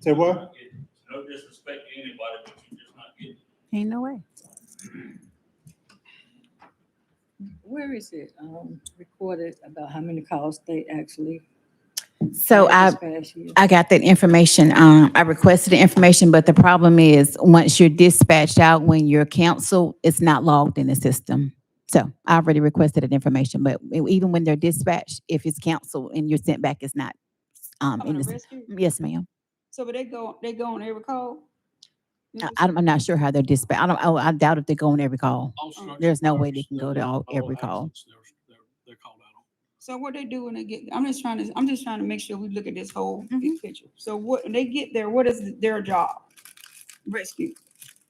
Say what? No disrespect to anybody, but you're just not getting. it. Ain't no way. Where is it, um, recorded about how many calls they actually? So I, had this past year? I got that information. Um, I requested the information, but the problem is, once you're dispatched out, when you're canceled, it's not logged in the system. So I already requested that information, but e- even when they're dispatched, if it's canceled and you're sent back, it's not, um, in Coming the, to sys- rescue? yes, ma'am. So, but they go, they go on every call? You I, just- I don't- I'm not sure how they're dispatched. I don't, I I doubt if they go on every call. All structure Mm. There's no way they fires, can go to they're- all- every call. accidents, They're, they're- they're called out on. So what they do when they get, I'm just trying to, I'm just trying to make sure we look at this whole big Mhm. picture. So what, when they get there, what is their job? Rescue,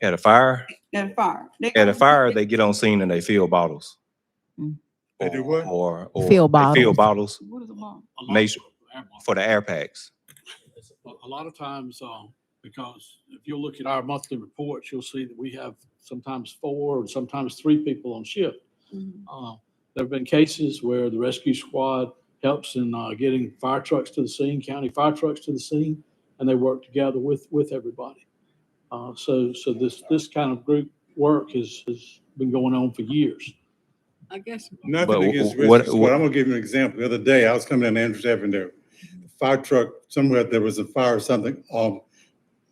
At a fire, at a fire. They at go- a fire, they get on scene and they fill bottles. Mm. They do Or- what? Or, or. Fill they Fill bottles. bottles What is a bomb? A lot Nation- of- air bomb. for the air packs. A a lot of times, uh, because if you look at our monthly reports, you'll see that we have sometimes four and sometimes three people on shift. Mm-hmm. Uh, There have been cases where the rescue squad helps in uh, getting fire trucks to the scene, county fire trucks to the scene, and they work together with, with everybody. Uh, So, so this, this kind of group work has, has been going on for years. I guess, But Nothing against wh- what- Richard Squad. what- I'm gonna give you an example. The other day, I was coming down Andrews Avenue. Fire truck, somewhere there was a fire or something on,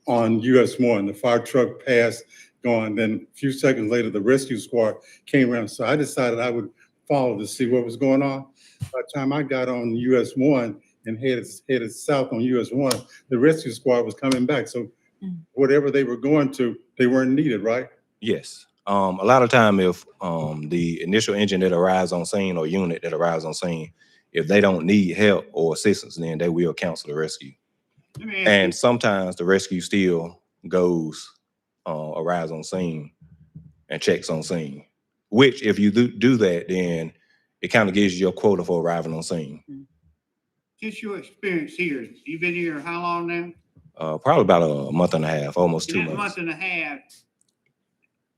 on US one. The fire truck passed, gone. Then a few seconds later, the rescue squad came around. So I decided I would follow to see what was going on. By the time I got on US one and headed, headed south on US one, the rescue squad was coming back. So Mm. whatever they were going to, they weren't needed, right? Yes. Um, a lot of time if, um, the initial engine that arrives on scene or unit that arrives on scene, if they don't need help or assistance, then they will cancel the rescue. Mm-hmm. And sometimes the rescue still goes, uh, arrives on scene and checks on scene. Which if you do, do that, then it kind of gives you your quota for arriving on scene. Just your experience here, you've been here how long now? Uh, probably about a month and a half, almost two In that months. month and a half,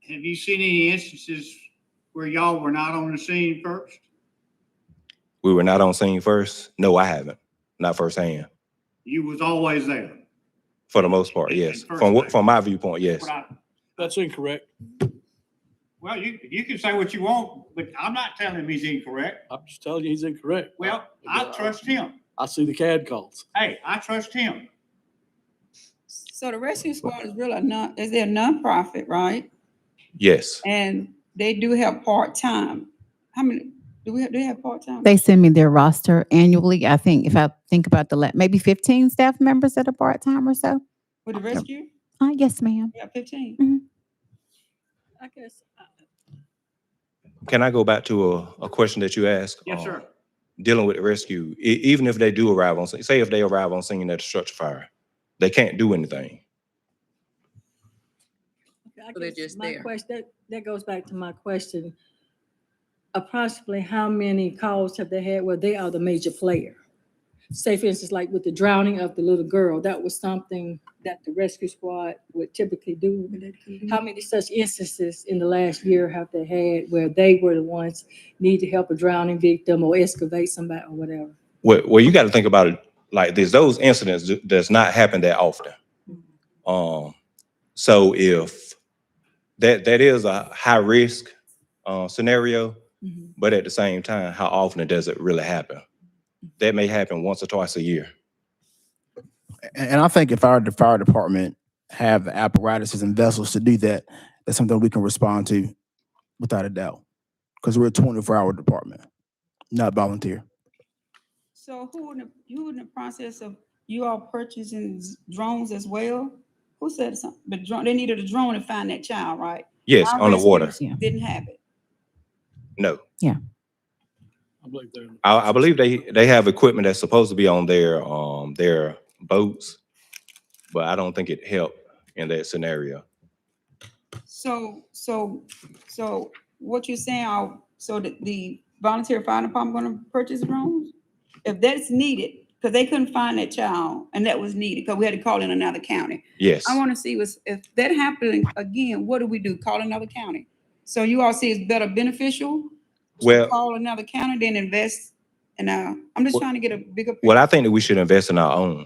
have you seen any instances where y'all were not on the scene first? We were not on scene first. No, I haven't. Not firsthand, You was always there. for the most part, And- yes. and first From, what- thing. from my viewpoint, yes. What I- That's incorrect. Well, you, you can say what you want, but I'm not telling him he's incorrect. I'm just telling you, he's incorrect. Well, I trust him. I see the CAD calls. Hey, I trust him. So the rescue squad is really a non, is they a nonprofit, right? Yes. And they do have part-time. How many, do we, have? do they have part-time? They send me their roster annually. I think, if I think about the, la- maybe fifteen staff members that are part-time or so. With the rescue? Uh, yes, ma'am. Yeah, fifteen. I guess, I- Can I go back to a, a question that you asked? Yes, um, sir. Dealing with the rescue, e- even if they do arrive on, scene- say if they arrive on scene at a structure fire, they can't do anything. I So they're guess just my there. question, that, that goes back to my question. Approximately how many calls have they had where they are the major player? Say for instance, like with the drowning of the little girl, that was something that the rescue squad would typically do. Mm-hmm. How many such instances in the last year have they had where they were the ones need to help a drowning victim or excavate somebody or whatever? Well, well, you got to think about it like this. Those incidents do- does not happen that often. Mm-hmm. Um, so if that that is a high risk uh, scenario, Mm-hmm. Mhm. but at the same time, how often does it really happen? That may happen once or twice a year. And, and I think if our de- fire department have the apparatuses and vessels to do that, that's something we can respond to without a doubt. Because we're a twenty-four hour department, not volunteer. So who in the, you in the process of, you all purchasing s- drones as well? Who said something? But drone, they needed a drone to find that child, right? Yes, Our on the rescue water. Yeah. Didn't have it. No, I believe they're. in the I, I process. believe they they have equipment that's supposed to be on their um their boats, but I don't think it helped in that scenario. So, so, so what you're saying, uh, so the, the volunteer fire department gonna purchase drones? If that's needed, because they couldn't find that child and that was needed, because we had to call in another county. Yes. I wanna see was, if that happened again, what do we do? Call another county? So you all see it's better beneficial to Well- Call another county than invest in, uh, I'm just Well- trying to get a bigger. Well, I picture. think that we should invest in our own.